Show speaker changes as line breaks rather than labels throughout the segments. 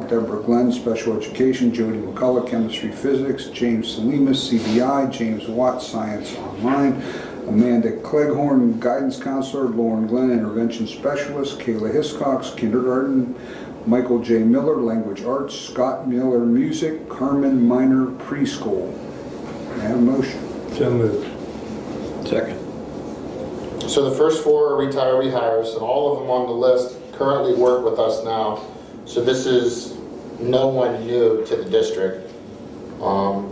Deborah Glenn, Special Education, Jody McCullough, Chemistry, Physics, James Salimas, CBI, James Watt, Science Online, Amanda Cleghorn, Guidance Counselor, Lauren Glenn, Intervention Specialist, Kayla Hiscox, Kindergarten, Michael J. Miller, Language Arts, Scott Miller, Music, Carmen Minor, Preschool. May I have a motion?
So moved.
Second.
So the first four are retiree hires, and all of them on the list currently work with us now. So this is no one new to the district. Um,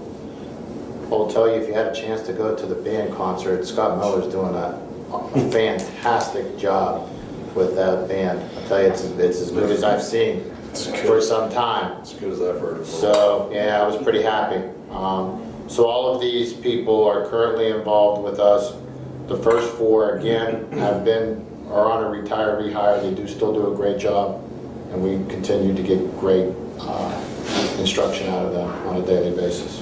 I'll tell you, if you had a chance to go to the band concert, Scott Miller's doing a a fantastic job with that band. I'll tell you, it's, it's as good as I've seen for some time.
As good as I've heard of it.
So, yeah, I was pretty happy. Um, So all of these people are currently involved with us. The first four, again, have been, are on a retiree hire. They do still do a great job, and we continue to get great uh, instruction out of them on a daily basis.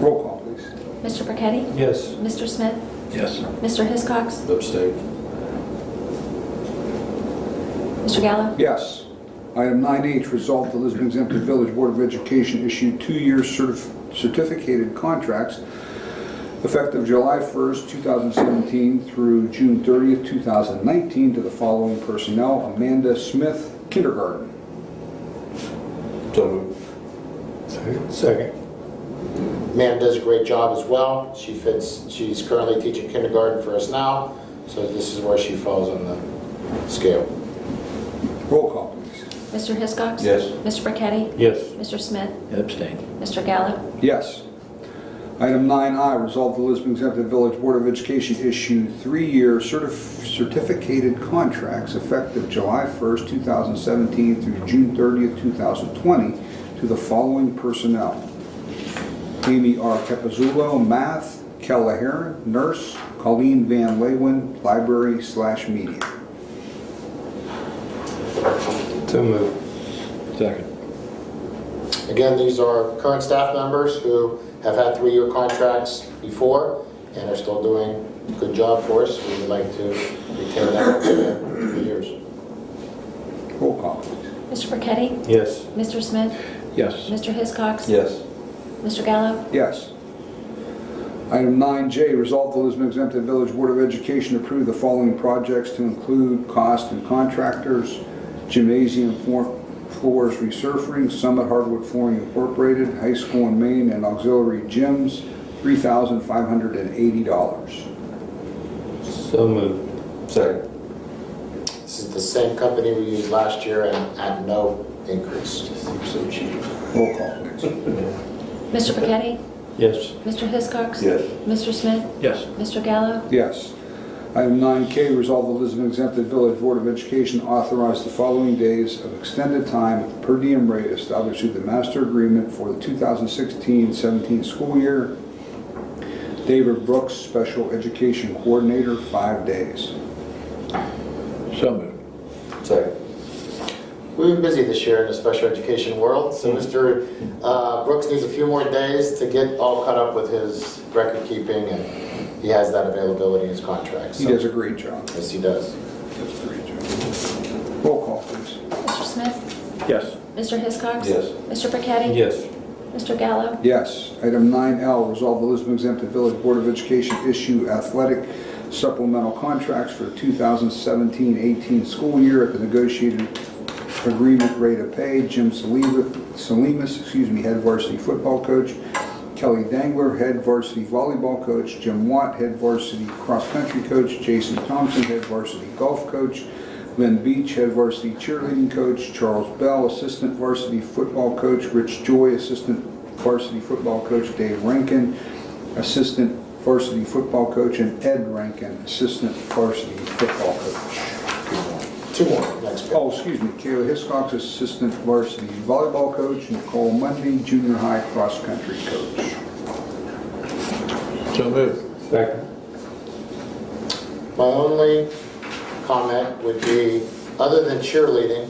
Roll call, please.
Mr. Burketti?
Yes.
Mr. Smith?
Yes.
Mr. Hiscox?
Abstain.
Mr. Gallo?
Yes. Item 9H, resolve the Lisbon Exempt Village Board of Education issue two-year certif- certificated contracts effective July 1st, 2017 through June 30th, 2019 to the following personnel, Amanda Smith, kindergarten.
So moved.
Second.
Ma'am does a great job as well. She fits, she's currently teaching kindergarten for us now, so this is where she falls on the scale.
Roll call, please.
Mr. Hiscox?
Yes.
Mr. Burketti?
Yes.
Mr. Smith?
Abstain.
Mr. Gallo?
Yes. Item 9I, resolve the Lisbon Exempt Village Board of Education issue three-year certif- certificated contracts effective July 1st, 2017 through June 30th, 2020 to the following personnel. Amy R. Capizzulo, Math, Kella Heron, Nurse, Colleen Van Leeuwen, Library slash Media.
So moved.
Second.
Again, these are current staff members who have had three-year contracts before and are still doing a good job for us. We would like to retain them for the three years.
Roll call, please.
Mr. Burketti?
Yes.
Mr. Smith?
Yes.
Mr. Hiscox?
Yes.
Mr. Gallo?
Yes. Item 9J, resolve the Lisbon Exempted Village Board of Education approve the following projects to include cost and contractors, gymnasium floor- floors resurfacing, Summit Hardwood Flooring Incorporated, High School in Maine, and auxiliary gyms, $3,580.
So moved.
Second.
This is the same company we used last year and at no increase.
So cheap.
Roll call, please.
Mr. Burketti?
Yes.
Mr. Hiscox?
Yes.
Mr. Smith?
Yes.
Mr. Gallo?
Yes. Item 9K, resolve the Lisbon Exempted Village Board of Education authorize the following days of extended time per diem rate established through the master agreement for the 2016-17 school year. David Brooks, Special Education Coordinator, five days.
So moved. Second.
We've been busy this year in the special education world,
Mm-hmm.
so Mr. uh, Brooks needs a few more days to get all caught up with his record keeping, and he has that availability in his contract.
He
so-
does a great job.
Yes, he does.
Does a great job. Roll call, please.
Mr. Smith?
Yes.
Mr. Hiscox?
Yes.
Mr. Burketti?
Yes.
Mr. Gallo?
Yes. Item 9L, resolve the Lisbon exempted Village Board of Education issue athletic supplemental contracts for 2017-18 school year at the negotiated agreement rate of pay. Jim Salima- Salimas, excuse me, head varsity football coach. Kelly Dangler, head varsity volleyball coach. Jim Watt, head varsity cross-country coach. Jason Thompson, head varsity golf coach. Lynn Beach, head varsity cheerleading coach, Charles Bell, assistant varsity football coach, Rich Joy, assistant varsity football coach, Dave Rankin, assistant varsity football coach, and Ed Rankin, assistant varsity football coach.
Two more, next page.
Oh, excuse me, Kayla Hiscox, assistant varsity volleyball coach, Nicole Mundy, junior high cross-country coach.
So moved.
Second.
My only comment would be, other than cheerleading,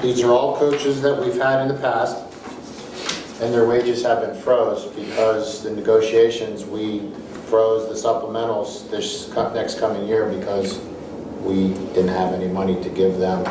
these are all coaches that we've had in the past, and their wages have been froze because the negotiations, we froze the supplementals this co- next coming year because we didn't have any money to give them